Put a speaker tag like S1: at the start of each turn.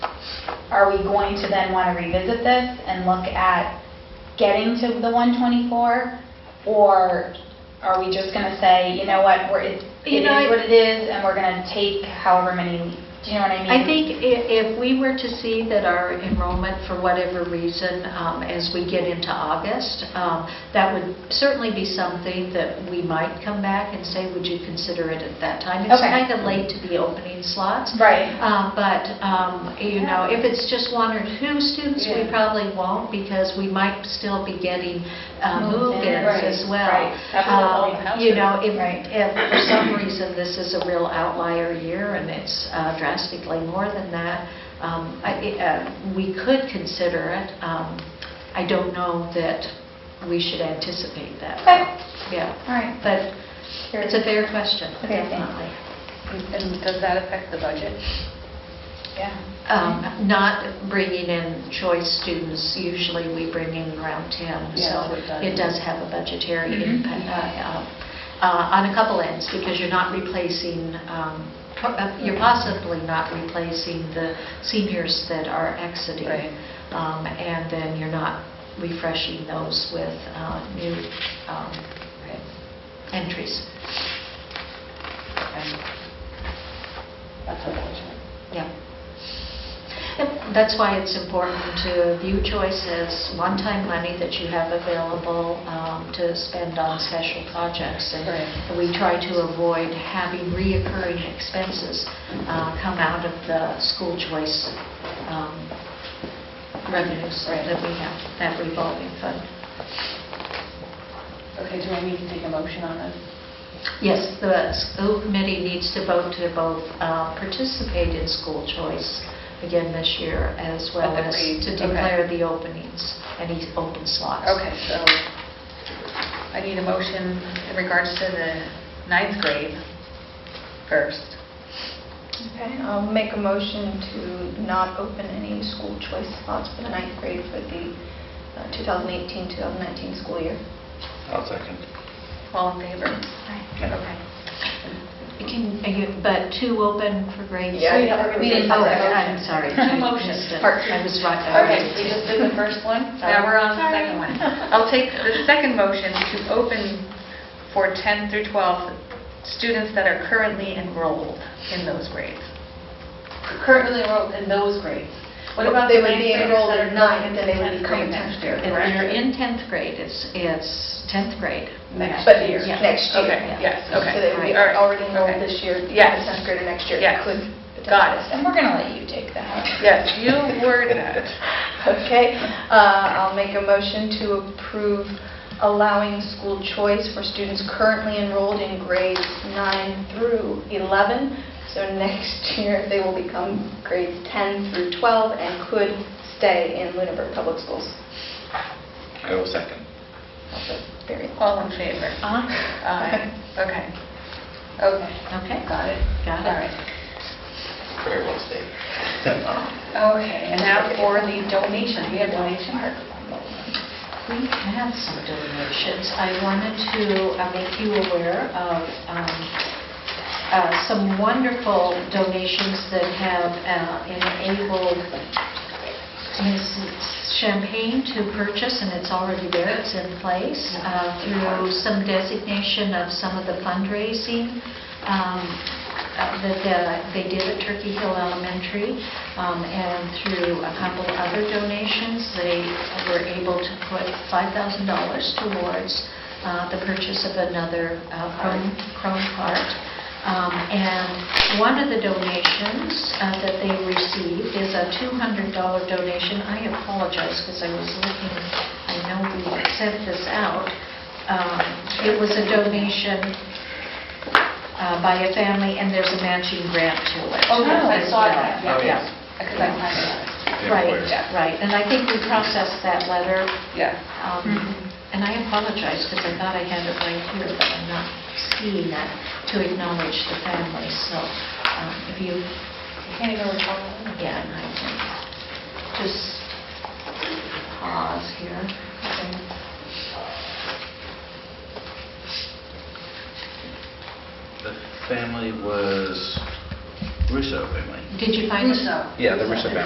S1: are we going to then want to revisit this and look at getting to the 124? Or are we just going to say, you know what, we're, it
S2: You
S1: it
S2: know, I-
S1: is what it is, and we're going to take however many, do you know what I mean?
S2: I think i- if we were to see that our enrollment, for whatever reason, um, as we get into August, um, that would certainly be something that we might come back and say, would you consider it at that time? It's
S1: Okay.
S2: kind of late to be opening slots.
S1: Right.
S2: Um, But, um, you know, if it's just one or two students, we
S3: Yeah.
S2: probably won't because we might still be getting uh,
S1: Move-ins,
S2: move-ins as
S1: right,
S2: well.
S1: right.
S3: That's
S2: Um,
S3: what all the houses-
S2: You know, if,
S1: Right.
S2: if for some reason this is a real outlier year and it's uh, drastically more than that, um, I- it, uh, we could consider it. Um, I don't know that we should anticipate that.
S1: Okay.
S2: Yeah,
S1: All right.
S2: but it's a fair question,
S1: Okay, thanks.
S2: definitely.
S3: And does that affect the budget?
S1: Yeah.
S2: Um, Not bringing in choice students, usually we bring in around 10,
S3: Yeah,
S2: so
S3: we've done
S2: it
S3: it.
S2: does have a budgetary
S1: Mhm.
S2: impact uh, uh, uh, on a couple ends, because you're not replacing, um, po- uh, you're possibly not replacing the seniors that are
S3: Right.
S2: exiting. Um, And then you're not refreshing those with uh, new um, entries.
S3: Okay. That's unfortunate.
S2: Yeah. And That's why it's important to view choice as one-time money that you have available um, to spend on special projects. And
S3: Right.
S2: we try to avoid having reoccurring expenses uh, come out of the school choice um, revenues
S3: Right.
S2: that we have, that revolving fund.
S3: Okay, do I need to take a motion on this?
S2: Yes, the school committee needs to vote to both uh, participate in school choice again this year, as well
S3: But the
S2: as
S3: pre-
S2: to
S3: okay.
S2: declare the openings, any open slots.
S3: Okay, so I need a motion in regards to the ninth grade first.
S4: Okay, I'll make a motion to not open any school choice spots for the ninth grade for the uh, 2018-2019 school year.
S5: I'll second.
S3: All in favor? Okay.
S2: You can- are you- But two open for grade
S4: Yeah,
S2: three?
S4: yeah,
S1: we didn't
S2: Oh,
S1: have that
S2: I'm
S1: motion.
S2: sorry.
S3: No
S2: I
S3: motion.
S2: missed it.
S3: Part two.
S2: I was right. I
S3: Okay,
S2: was-
S3: we just did the first one, now we're on the
S1: Sorry.
S3: second one. I'll take the second motion to open for 10 through 12 students that are currently enrolled in those grades. Currently enrolled in those grades. What about the
S4: They would
S3: ninth
S4: be
S3: graders
S4: enrolled
S3: that are
S4: in
S3: not
S4: ninth,
S3: in
S4: then
S3: the
S4: they would
S3: 10th
S4: become
S3: grade next year?
S4: tenth
S2: If
S3: correct?
S2: you're in 10th grade, it's, it's 10th grade.
S3: Next
S4: But
S3: year.
S2: Yeah.
S4: Next year.
S3: Okay, yes, okay.
S4: So they would be
S3: All right,
S4: already enrolled
S3: okay.
S4: this year. the
S3: Yes.
S4: 10th grade or next year
S3: Yes.
S4: could.
S3: Got it.
S1: And we're going to let you take that.
S3: Yes, you were that.
S4: Okay, uh, I'll make a motion to approve allowing school choice for students currently enrolled in grades 9 through 11. So next year, they will become grades 10 through 12 and could stay in Lunenburg Public Schools.
S5: I will second.
S4: Also very important.
S3: All in favor?
S2: Uh,
S3: Aye. Okay. Okay,
S2: Okay,
S3: got it.
S2: got
S3: All
S2: it.
S3: right.
S5: Very well stated.
S3: Okay, and now for the donations, we have donations?
S2: We have some donations. I wanted to uh, make you aware of um, uh, some wonderful donations that have uh, enabled Mrs. Champagne to purchase, and it's already there, it's in place, uh, through some designation of some of the fundraising um, uh, that uh, they did at Turkey Hill Elementary, um, and through a couple other donations, they were able to put $5,000 towards uh, the purchase of another uh, Chrome Chrome cart. Um, And one of the donations uh, that they received is a $200 donation. I apologize because I was looking, I know we sent this out. Um, It was a donation uh, by a family, and there's a matching grant to it.
S3: Oh, yes, I
S2: as
S3: saw
S2: well.
S3: that.
S5: Oh, yes.
S3: Because I have that.
S2: Right,
S5: Employer.
S2: right. And I think we processed that letter,
S3: Yes.
S2: um,
S3: Mm-hmm.
S2: and I apologize because I thought I had it right here, but I'm not seeing that to acknowledge the family. So um, if you
S3: I can't even recall.
S2: again, I can just pause here.
S5: The family was Russo family.
S2: Did you find it?
S5: Yeah, the Russo family.